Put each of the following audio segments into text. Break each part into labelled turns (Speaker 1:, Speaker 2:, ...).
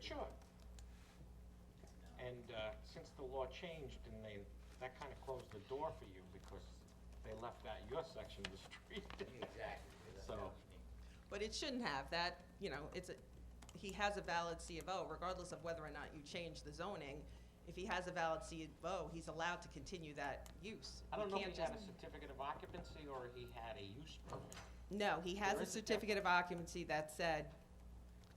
Speaker 1: Sure. And uh, since the law changed and they, that kind of closed the door for you because they left out your section of the street.
Speaker 2: Exactly. that's
Speaker 1: So-
Speaker 2: what I mean.
Speaker 3: But it shouldn't have, that, you know, it's, a he has a valid C of O regardless of whether or not you change the zoning. If he has a valid C of O, he's allowed to continue that use.
Speaker 1: I
Speaker 3: You
Speaker 1: don't know
Speaker 3: can't
Speaker 1: if he had
Speaker 3: just-
Speaker 1: a certificate of occupancy or he had a use permit.
Speaker 3: No, he has
Speaker 1: There
Speaker 3: a
Speaker 1: is a
Speaker 3: certificate of occupancy that said,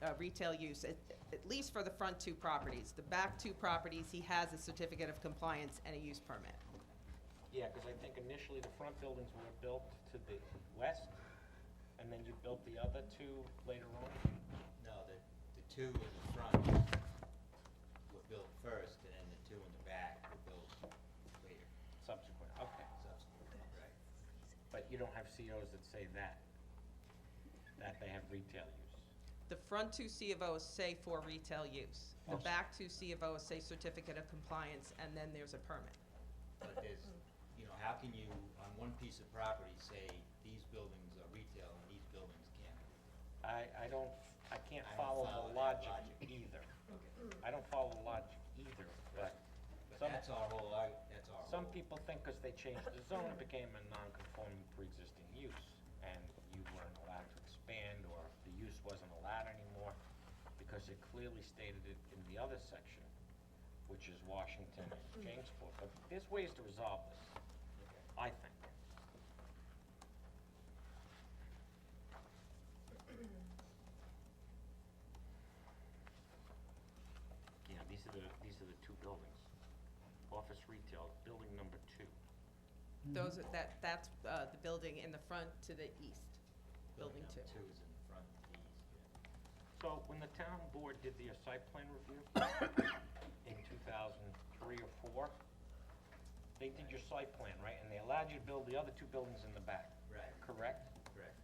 Speaker 3: uh, retail use, at, at least for the front two properties. The back two properties, he has a certificate of compliance and a use permit.
Speaker 1: Yeah, because I think initially the front buildings were built to the west, and then you built the other two later on.
Speaker 2: No, the, the two in the front were built first, and then the two in the back were built later,
Speaker 1: Subsequent, okay.
Speaker 2: subsequently, right?
Speaker 1: But you don't have COs that say that, that they have retail use.
Speaker 3: The front two C of Os say for retail use. The
Speaker 1: Oh.
Speaker 3: back two C of Os say certificate of compliance, and then there's a permit.
Speaker 2: But there's, you know, how can you, on one piece of property, say, these buildings are retail and these buildings can't?
Speaker 1: I, I don't, I can't
Speaker 2: I don't
Speaker 1: follow
Speaker 2: follow
Speaker 1: the
Speaker 2: that
Speaker 1: logic
Speaker 2: logic.
Speaker 1: either.
Speaker 2: Okay.
Speaker 1: I don't follow the logic either,
Speaker 2: But
Speaker 1: but Some-
Speaker 2: that's our whole, arg- that's our whole.
Speaker 1: some people think because they changed the zone, it became a non-conforming pre-existing use, and you weren't allowed to expand, or the use wasn't allowed anymore, because it clearly stated it in the other section, which is Washington and Jamesport, but there's ways to resolve this,
Speaker 2: Okay.
Speaker 1: I think. Yeah, these are the, these are the two buildings. Office retail, building number two.
Speaker 3: Those, are- that, that's uh, the building in the front to the east, building two.
Speaker 2: number Two is in the front, these, yeah.
Speaker 1: So when the town board did their site plan review in two thousand three or four, they did your site plan, right? And they allowed you to build the other two buildings in the back,
Speaker 2: Right,
Speaker 1: correct?
Speaker 2: correct.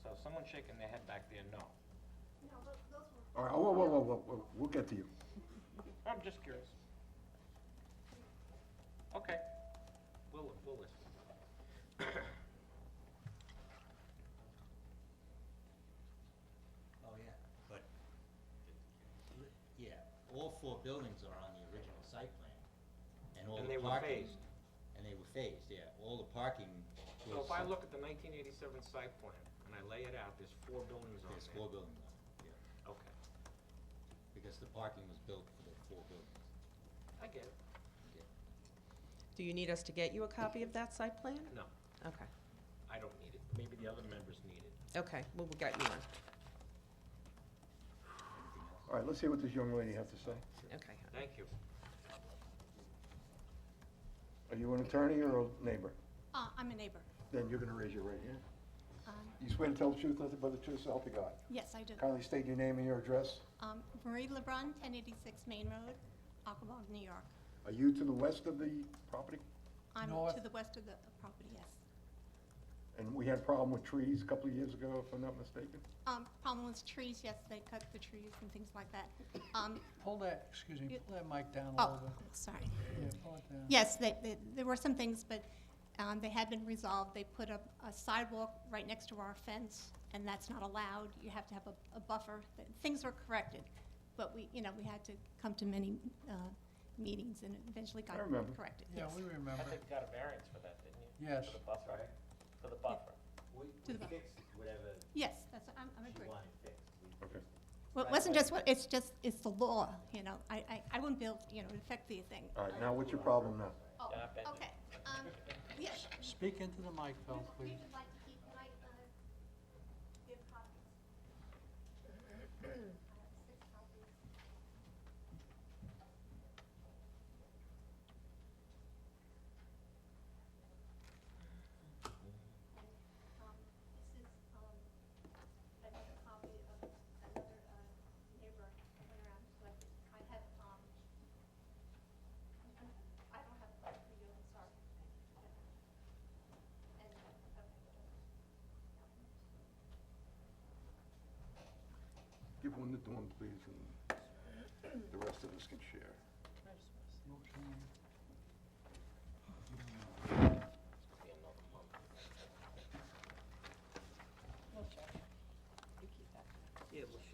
Speaker 1: So someone shaking their head back there, no.
Speaker 4: No, tho- those were,
Speaker 5: All right, Uh, whoa, whoa, whoa, whoa, whoa, we'll get to you.
Speaker 1: I'm just curious. Okay, we'll, we'll listen.
Speaker 2: Oh, yeah, but, yeah, all four buildings are on the original site plan, and all
Speaker 1: And
Speaker 2: the
Speaker 1: they were
Speaker 2: parking.
Speaker 1: phased.
Speaker 2: And they were phased, yeah, all the parking
Speaker 1: So
Speaker 2: was,
Speaker 1: if I look at the nineteen eighty-seven site plan and I lay it out, there's four buildings on
Speaker 2: there's
Speaker 1: there.
Speaker 2: four buildings on it, yeah,
Speaker 1: Okay,
Speaker 2: because the parking was built for the four buildings.
Speaker 1: I get it.
Speaker 3: Do you need us to get you a copy of that site plan?
Speaker 1: No,
Speaker 3: Okay,
Speaker 1: I don't need it. Maybe the other members need it.
Speaker 3: okay, well, we'll get you one.
Speaker 2: Anything else?
Speaker 5: All right, let's hear what this young lady has to say.
Speaker 3: Okay.
Speaker 1: Thank you.
Speaker 5: Are you an attorney or a neighbor?
Speaker 4: uh, I'm a neighbor.
Speaker 5: Then you're gonna raise your right hand.
Speaker 4: Um,
Speaker 5: You swear to tell the truth, nothing but the truth, so help you God.
Speaker 4: Yes, I do.
Speaker 5: Kindly state your name and your address.
Speaker 4: Um, Marie Lebrun, 1086 Main Road, Aquabog, New York.
Speaker 5: Are you to the west of the property?
Speaker 4: I'm to
Speaker 6: North.
Speaker 4: the west of the property, yes.
Speaker 5: And we had a problem with trees a couple of years ago, if I'm not mistaken.
Speaker 4: Um, Problem was trees, yes, they cut the trees and things like that. Um,
Speaker 6: Pull that, excuse me,
Speaker 4: You-
Speaker 6: pull that mic down a
Speaker 4: Oh,
Speaker 6: little
Speaker 4: sorry.
Speaker 6: bit. Yeah, pull it down.
Speaker 4: Yes, they- they- there were some things, but um, they had been resolved. They put up a sidewalk right next to our fence, and that's not allowed. You have to have a- a buffer. Th- Things were corrected, but we, you know, we had to come to many uh, meetings and it eventually got
Speaker 5: I remember.
Speaker 4: corrected.
Speaker 6: Yeah,
Speaker 4: yes.
Speaker 6: we
Speaker 1: I
Speaker 6: remember.
Speaker 1: think you got a variance for that, didn't you?
Speaker 6: Yes.
Speaker 1: For the buffer, right? For the buffer.
Speaker 2: We,
Speaker 4: To the back.
Speaker 2: fixed whatever
Speaker 4: Yes, that's, I'm, I'm agreeing.
Speaker 2: fixed.
Speaker 5: Okay.
Speaker 4: Well, it wasn't just what, it's just, it's the law, you know, I, I, I wouldn't build, you know, it'd affect the thing.
Speaker 5: All right, now what's your problem now?
Speaker 4: Oh,
Speaker 1: Yeah, I bet you-
Speaker 4: okay, um, yes.
Speaker 6: Speak into the mic, Phil, please.
Speaker 4: like to keep, like, uh, give copies. I have six copies. And, um, this is, um, another copy of another, uh, neighbor that went around, like, I have, um, I don't have a copy for you, I'm sorry. And, okay.
Speaker 5: Give one to Dawn, please, and the rest of us can share.
Speaker 3: Yeah, we'll